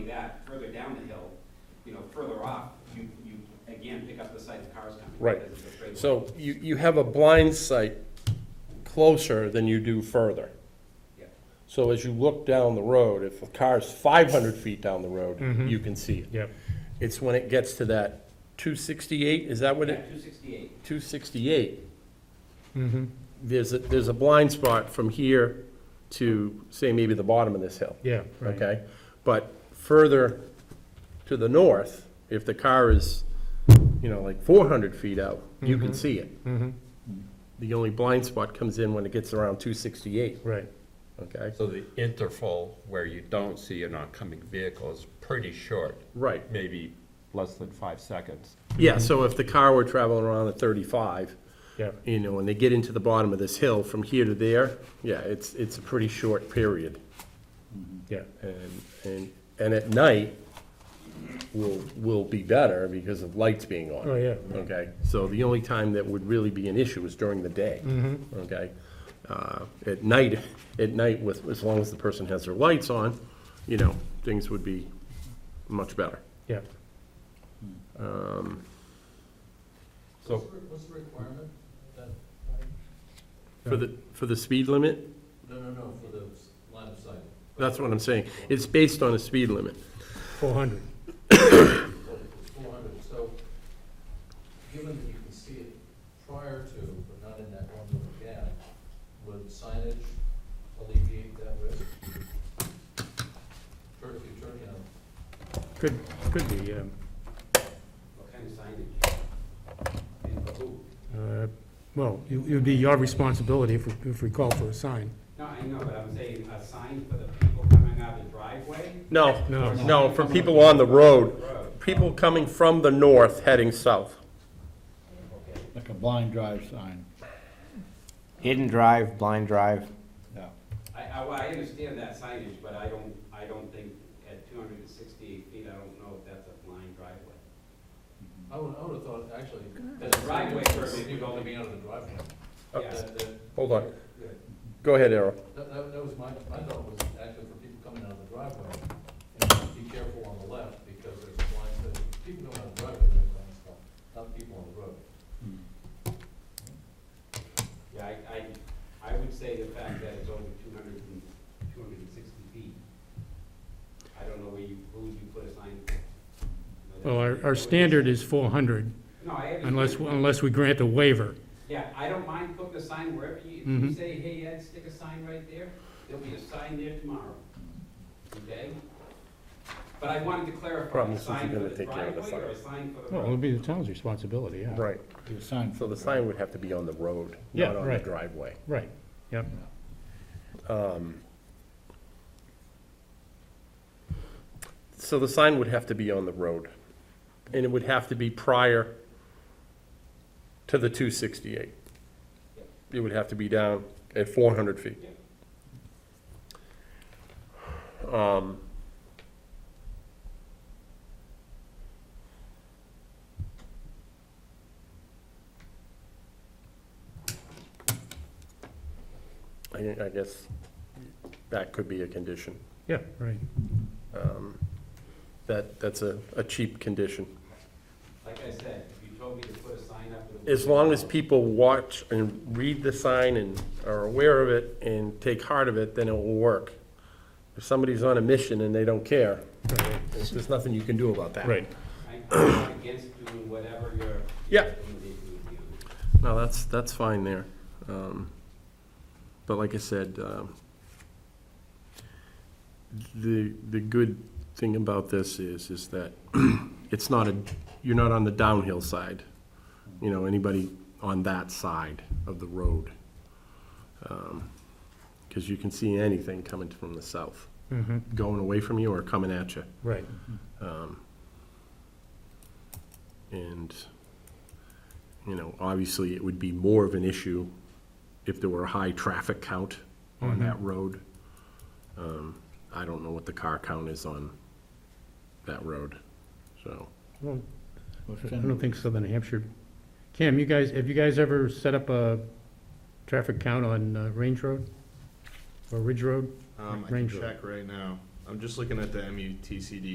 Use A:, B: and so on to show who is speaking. A: that, further down the hill, you know, further off, you, you again pick up the sight of cars coming.
B: Right.
A: because of the straight line.
B: So you, you have a blind sight closer than you do further.
A: Yeah.
B: So as you look down the road, if a car's five hundred feet down the road, you can see it.
C: Yep.
B: It's when it gets to that two sixty-eight, is that what it,
A: two sixty-eight,
B: two sixty-eight?
C: Mm-hmm.
B: There's a, there's a blind spot from here to, say, maybe the bottom of this hill.
C: Yeah, right.
B: Okay, but further to the north, if the car is, you know, like four hundred feet out, you can see it. The only blind spot comes in when it gets around two sixty-eight,
C: Right.
B: okay?
D: So the interval where you don't see an oncoming vehicle is pretty short,
B: Right,
D: maybe less than five seconds.
B: yeah, so if the car were traveling around at thirty-five,
C: Yeah.
B: you know, and they get into the bottom of this hill from here to there, yeah, it's, it's a pretty short period.
C: Yeah.
B: And, and, and at night will, will be better because of lights being on.
C: Oh, yeah.
B: Okay, so the only time that would really be an issue is during the day.
C: Mm-hmm.
B: Okay? Uh, At night, at night with, as long as the person has their lights on, you know, things would be much better.
C: Yeah.
D: So-
E: What's the re- What's the requirement that,
B: For the, for the speed limit,
E: no, no, no, for the s- line of sight?
B: that's what I'm saying. It's based on a speed limit.
C: Four hundred.
E: Four hundred, so given that you can see it prior to, but not in that one little gap, would signage alleviate that risk? Turn if you turn, you know,
C: Could, could be, um,
A: what kind of signage? And for who?
C: uh, well, it it would be your responsibility if, we- if we call for a sign.
A: No, I know, but I'm saying a sign for the people coming out of the driveway?
B: No,
C: No.
B: no, for people on the road,
A: Road,
B: people coming from the north heading south.
A: okay.
F: Like a blind drive sign,
G: Hidden drive, blind drive.
F: yeah.
A: I, I, well, I understand that signage, but I don't, I don't think at two hundred and sixty-eight feet, I don't know if that's a blind driveway.
E: I would, I would have thought, actually.
A: There's a driveway permit.
E: You'd only be out of the driveway.
A: Yeah.
E: That, that,
B: Hold on,
E: yeah.
B: go ahead, Errol.
E: That, that, that was my, my thought was actually for people coming out of the driveway, and be careful on the left, because there's blinds that, people coming out of the driveway, there's blind stuff, not people on the road.
A: Yeah, I, I, I would say the fact that it's over 200 and 260 feet. I don't know where you, who you put a sign.
C: Well, our, our standard is four hundred
A: No, I understand.
C: unless, unless we grant a waiver.
A: Yeah, I don't mind putting a sign wherever you, if you
C: Mhm.
A: say, hey, Ed, stick a sign right there, there'll be a sign there tomorrow, okay? But I wanted to clarify,
B: Problem
A: a
B: is, if you're
A: sign for
B: gonna
A: the
B: take care of the
A: driveway or a
B: fire.
A: sign for the
C: Well, it would
A: road?
C: be the town's responsibility, yeah.
B: Right.
F: The sign
B: So the sign would have to be on the road,
C: Yeah,
B: not on the
C: right.
B: driveway.
C: Right, yep.
B: So the sign would have to be on the road, and it would have to be prior to the two sixty-eight. It would have to be down at four hundred feet. Um, I, I guess that could be a condition.
C: Yeah, right.
B: Um, That, that's a, a cheap condition.
A: Like I said, if you told me to put a sign up. it would
B: As
A: be
B: long as
A: tomorrow.
B: people watch and read the sign and are aware of it and take heart of it, then it will work. If somebody's on a mission and they don't care, there's nothing you can do about that.
C: Right.
A: I- I'm not against doing whatever your.
B: Yeah.
A: recommendation would be.
B: No, that's, that's fine there. Um, But like I said, um, the, the good thing about this is, is that it's not a, you're not on the downhill side. You know, anybody on that side of the road. Because you can see anything coming from the south,
C: Mm-hmm,
B: going away from you or coming at you.
C: right.
B: And, you know, obviously, it would be more of an issue if there were a high traffic count on that road. Um, I don't know what the car count is on that road, so.
C: Well,
F: What's
C: I
F: in-
C: don't think Southern Hampshire. Cam, you guys, have you guys ever set up a traffic count on uh, Range Road? Or Ridge Road?
H: Um, I can
C: Range Rover.
H: check right now. I'm just looking at the MUTCD